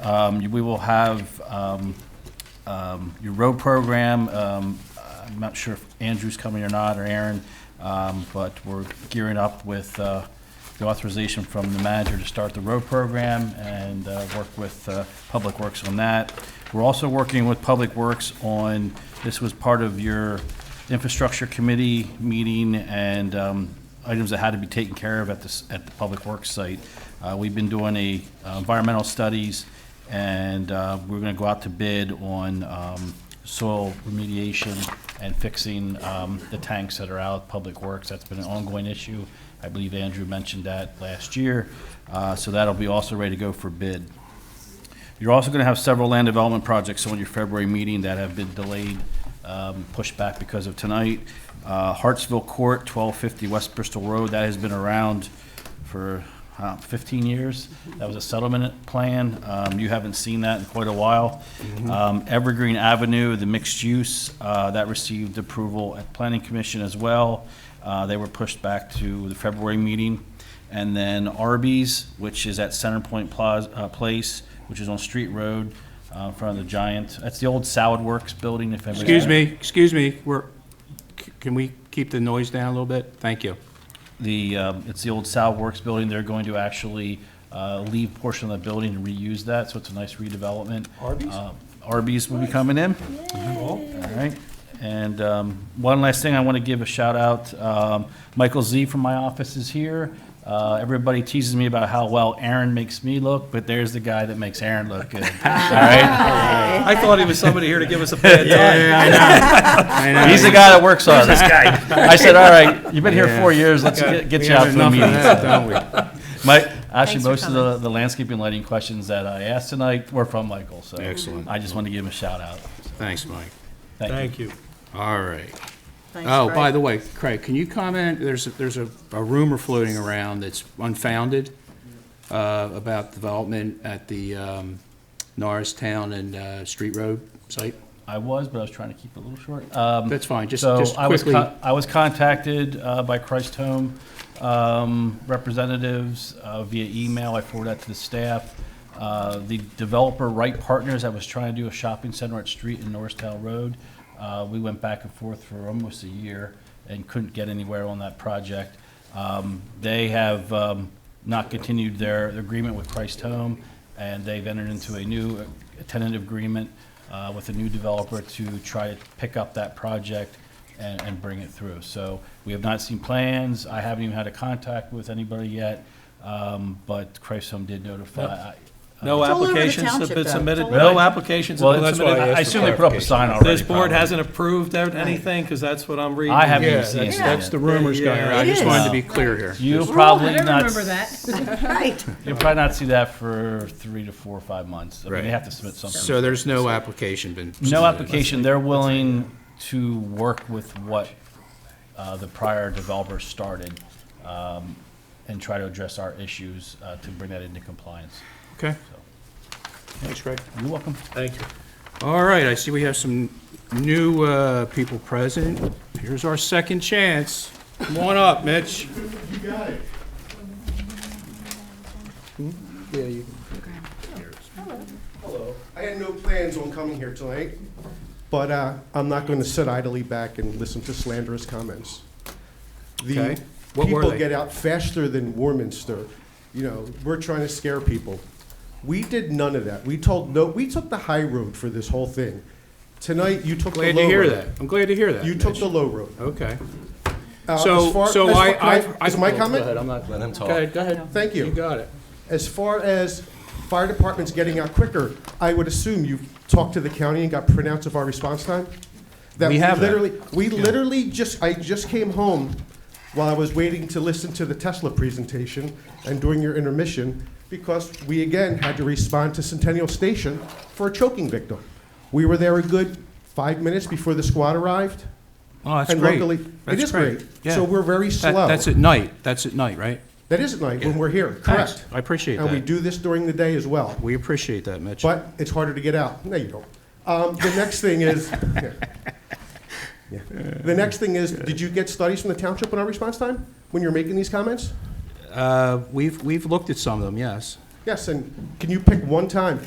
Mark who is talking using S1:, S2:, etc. S1: Um, We will have um, um, your road program. um, I'm not sure if Andrew's coming or not, or Aaron, um, but we're gearing up with uh, the authorization from the manager to start the road program and uh, work with uh, Public Works on that. We're also working with Public Works on, this was part of your infrastructure committee meeting and um, items that had to be taken care of at this, at the Public Works site. Uh, We've been doing a uh, environmental studies, and uh, we're gonna go out to bid on um, soil remediation and fixing um, the tanks that are out, Public Works, that's been an ongoing issue. I believe Andrew mentioned that last year, Uh, so that'll be also ready to go for bid. You're also going to have several land development projects on your February meeting that have been delayed, um, pushed back because of tonight. Uh, Hartsville Court, 1250 West Bristol Road, that has been around for uh, 15 years. That was a settlement plan. Um, You haven't seen that in quite a while. Um, Evergreen Avenue, the mixed use, uh, that received approval at Planning Commission as well. Uh, They were pushed back to the February meeting. And then Arby's, which is at Center Point Plaza, uh, Place, which is on Street Road, uh, in front of the Giant. That's the old Salad Works building, if anybody's.
S2: Excuse me, excuse me, we're, c- can we keep the noise down a little bit? Thank you.
S1: The, um, it's the old Salad Works building. They're going to actually, uh, leave portion of the building and reuse that, so it's a nice redevelopment.
S3: Arby's?
S1: Uh, Arby's will be coming in. All right, and um, one last thing, I want to give a shout out. Um, Michael Z from my office is here. Uh, Everybody teases me about how well Aaron makes me look, but there's the guy that makes Aaron look good. All right,
S3: I thought he was somebody here to give us a bad time.
S1: he's the guy that works on it. This guy. I said, all right, you've been here four years, let's get get you out to a meeting. Mike, actually,
S4: Thanks for
S1: most of the, the landscaping lighting questions that I asked tonight were from Michael, so.
S2: Excellent.
S1: I just want to give him a shout out.
S2: Thanks, Mike.
S1: Thank you.
S3: Thank you.
S2: All right.
S4: Thanks,
S2: Oh, by
S4: Craig.
S2: the way, Craig, can you comment, there's, a- there's a a rumor floating around that's unfounded uh, about development at the um, Norristown and uh, Street Road site?
S1: I was, but I was trying to keep it a little short. Um,
S2: That's fine, just,
S1: So
S2: just
S1: I was,
S2: quickly.
S1: con- I was contacted uh, by Christ Home um, representatives uh, via email. I forwarded that to the staff. Uh, The developer Wright Partners, I was trying to do a shopping center at Street and Norristown Road. Uh, We went back and forth for almost a year and couldn't get anywhere on that project. Um, They have um, not continued their agreement with Christ Home, and they've entered into a new tentative agreement uh, with a new developer to try to pick up that project and, and bring it through. So we have not seen plans. I haven't even had a contact with anybody yet, um, but Christ Home did notify.
S3: No
S4: It's all over the
S3: applications have
S4: township,
S3: been
S4: though.
S3: submitted,
S4: It's all
S3: no
S4: over-
S3: applications
S1: Well,
S3: have been
S1: that's what I
S3: submitted.
S1: I assume they put up a sign already.
S3: This board
S1: probably.
S3: hasn't approved out anything, because that's what I'm reading.
S1: I haven't
S2: Yeah,
S1: even seen it
S2: that's,
S1: yet.
S2: that's the rumors going around, I
S4: It
S2: just wanted
S4: is.
S2: to be clear here.
S1: You'll
S5: Ooh,
S1: probably
S5: I don't
S1: not,
S5: remember that.
S4: Right.
S1: you'll probably not see that for three to four or five months. I mean,
S2: Right.
S1: they have to submit something.
S2: So there's no application been.
S1: No
S2: submitted.
S1: application, they're willing to work with what uh, the prior developer started um, and try to address our issues uh, to bring that into compliance.
S2: Okay. Thanks, Craig.
S1: You're welcome.
S3: Thank you.
S2: All right, I see we have some new uh, people present. Here's our second chance. Come on up, Mitch. Hmm?
S6: I had no plans on coming here tonight, but uh, I'm not going to sit idly back and listen to slanderous comments. The
S2: Okay. What were
S6: people
S2: they?
S6: get out faster than Warminster. You know, we're trying to scare people. We did none of that. We told no, we took the high road for this whole thing. Tonight, you took the low road.
S2: Glad to hear that. I'm glad to hear that.
S6: You took
S2: Mitch.
S6: the low road.
S2: Okay.
S6: Uh, as
S2: So,
S6: far-
S2: so
S6: as far-
S2: I,
S6: can I-
S2: I've- I.
S6: Is my
S2: go
S6: comment?
S2: ahead, I'm not. Let him talk. Go ahead, go ahead.
S6: Thank you.
S2: You got it.
S6: As far as fire departments getting out quicker, I would assume you talked to the county and got printouts of our response time? That
S2: We have that.
S6: literally, We literally just, I just came home while I was waiting to listen to the Tesla presentation and during your intermission, because we again had to respond to Centennial Station for a choking victim. We were there a good five minutes before the squad arrived.
S2: Oh, that's
S6: And
S2: great.
S6: luckily- it
S2: That's
S6: is great.
S2: Yeah.
S6: So we're very
S2: That-
S6: slow.
S2: That's at night. That's at night, right?
S6: That is at night when we're here,
S2: Thanks.
S6: correct?
S2: I appreciate
S6: And we
S2: that.
S6: do this during the day as well.
S2: We appreciate that, Mitch.
S6: But it's harder to get out. No, you don't. Um, the next thing is, yeah. Yeah. the next thing is, did you get studies from the township on our response time when you're making these comments?
S2: Uh, We've, we've looked at some of them, yes.
S6: Yes, and can you pick one time